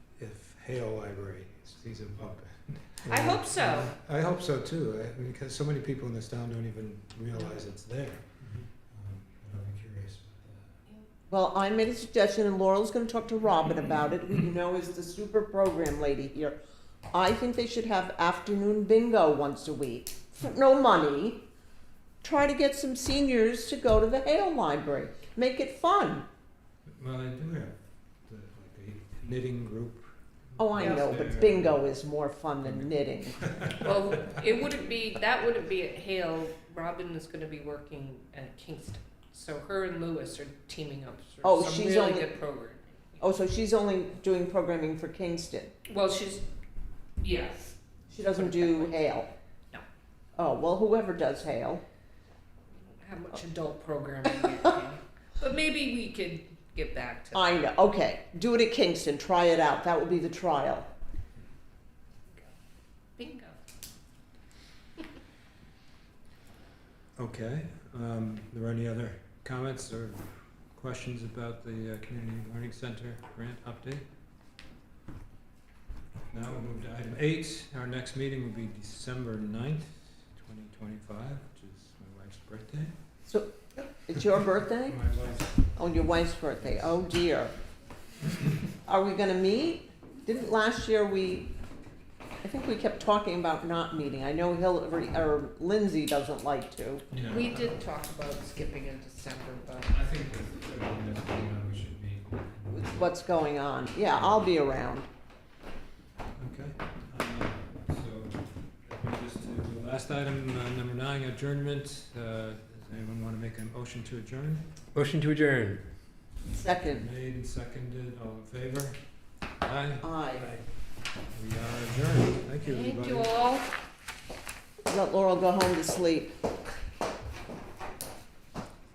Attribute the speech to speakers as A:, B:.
A: Hale Library. He's in Pompano.
B: I hope so.
A: I hope so too, I- because so many people in this town don't even realize it's there. Um, but I'll be curious about
C: Well, I made a suggestion, and Laurel's gonna talk to Robin about it, who you know is the super program lady here. I think they should have afternoon bingo once a week, for no money. Try to get some seniors to go to the Hale Library, make it fun.
A: that. Well, I do have the, like a knitting group.
C: Oh, I
B: Yeah.
C: know, but bingo is more fun than knitting.
B: Well, it wouldn't be, that wouldn't be at Hale. Robin is gonna be working at Kingston. So her and Lewis are teaming up
C: Oh,
B: for some
C: she's
B: really
C: only-
B: good programming.
C: Oh, so she's only doing programming for Kingston,
B: Well, she's, yes.
C: she doesn't do Hale?
B: No.
C: Oh, well, whoever does Hale.
B: How much adult programming at Hale. But maybe we could get back to
C: I know. Okay, do it at Kingston. Try it out. That will be the trial.
B: bingo.
A: Okay, um, there any other comments or questions about the uh, Community Learning Center grant update? Now we'll move to item eight, our next meeting will be December ninth, twenty twenty-five, which is my wife's birthday.
C: So, it's your birthday?
A: My wife's
C: Oh, your wife's birthday. Oh dear. Are we gonna meet? Didn't last year we? I think we kept talking about not meeting. I know Hillary or Lindsay doesn't like to.
A: Yeah.
B: We did talk about skipping in December, but
D: I think with everything that's going on, we should meet.
C: with What's going on? Yeah, I'll be around.
A: Okay, uh, so, if we just do the last item, uh, number nine, adjournment, uh, does anyone wanna make a motion to adjourn?
D: Motion to adjourn.
C: Second,
A: Made and seconded, all in favor? Aye,
C: aye.
A: we are adjourned, thank you, everybody.
B: thank you all.
C: Let Laurel go home to sleep.